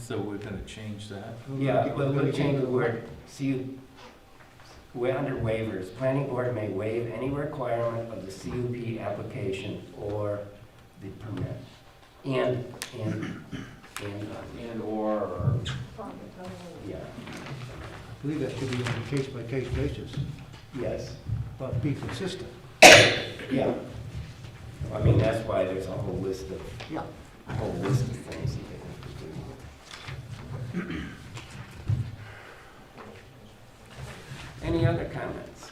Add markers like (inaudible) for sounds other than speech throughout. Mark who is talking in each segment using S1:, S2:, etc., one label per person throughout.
S1: So we're gonna change that?
S2: Yeah, we'll, we'll change the word, CU, we're under waivers. Planning board may waive any requirement of the CUP application or the permit. And, and, and, uh,
S3: And/or, or
S2: yeah,
S4: I believe that should be on a case-by-case basis,
S2: yes,
S4: but be consistent.
S2: yeah. I mean, that's why there's a whole list of,
S4: Yeah.
S2: a whole list of things that they have to do. Any other comments?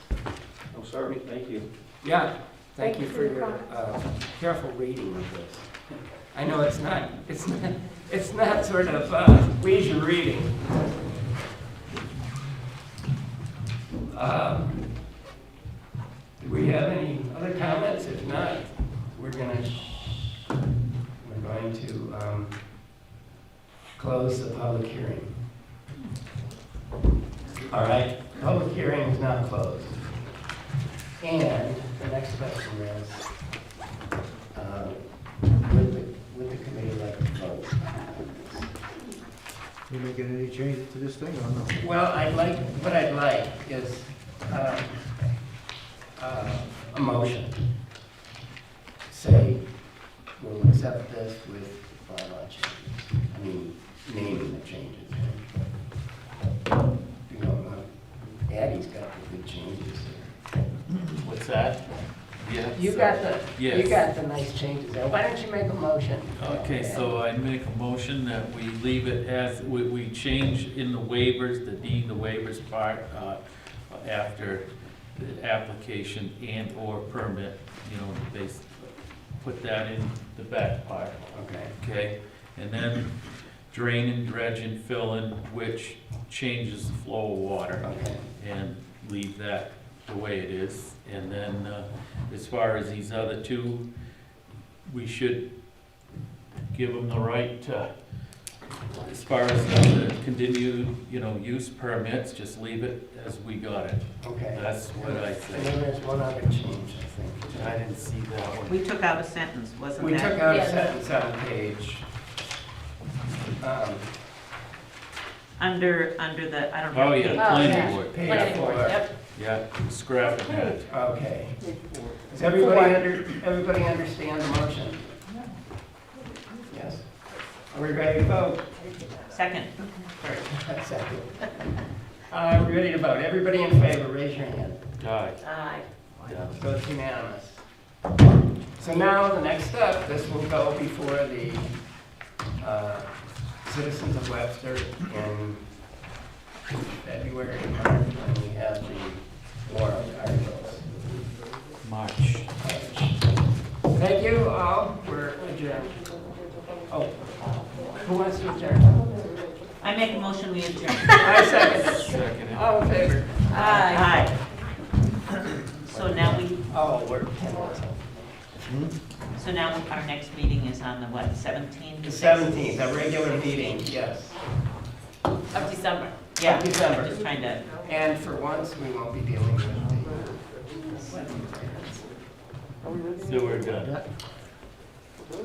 S3: I'm sorry, thank you.
S2: Yeah, thank you for your
S5: comments.
S2: uh, careful reading of this. I know it's not, it's not, it's not sort of uh, leisure reading. Um, Do we have any other comments? If not, we're gonna, sh- we're going to um, close the public hearing. All right, public hearing is now closed. And the next question is, um, would the, would the committee like to vote?
S4: You making any changes to this thing or no?
S2: Well, I'd like, what I'd like is, um, uh, a motion. Say, we'll accept this with bylaw changes, I mean, naming the changes. You know, uh, Addie's got the good changes here.
S1: What's that? Yes.
S2: You got the, you
S1: Yes.
S2: got the nice changes there, why don't you make a motion?
S1: Okay, so I make a motion that we leave it as, we, we change in the waivers, the deed, the waivers part, uh, after the application and/or permit, you know, they s- put that in the back part,
S2: Okay.
S1: okay? And then drain and dredge and fill in, which changes the flow of water.
S2: Okay,
S1: and leave that the way it is. And then, uh, as far as these other two, we should give them the right to, as far as the continued, you know, use permits, just leave it as we got it.
S2: okay.
S1: That's what I
S2: And
S1: say.
S2: then there's one other change, I think.
S1: I didn't see that one.
S6: We took out a sentence, wasn't
S2: We
S6: that?
S2: took out a
S5: Yeah.
S2: sentence on page, um,
S6: Under, under the, I don't know.
S1: Oh, yeah,
S5: yeah.
S1: planning board,
S2: page
S1: yeah,
S2: four.
S5: Yep.
S1: yeah, scrapping that.
S2: Okay. Does everybody under, everybody understand the motion? Yes? Are we ready to vote? (laughs)
S6: Second,
S2: That's second. I'm ready to vote. Everybody in favor, raise your hand.
S1: Aye,
S5: Aye.
S1: yeah.
S2: So it's unanimous. So now, the next step, this will go before the uh, citizens of Webster in February, March, when we have the warrant articles.
S1: March.
S2: Thank you all, we're adjourned. Oh, who wants to adjourn?
S6: I make a motion, we adjourn.
S2: I second.
S1: Second.
S2: All in favor?
S6: Aye. So now we,
S2: Oh, we're ten minutes over.
S6: so now our next meeting is on the what, seventeenth?
S2: The seventeenth, a regular meeting, yes,
S5: Of December.
S6: Yeah,
S2: December.
S6: just trying to,
S2: and for once, we won't be dealing with the.
S1: So we're done.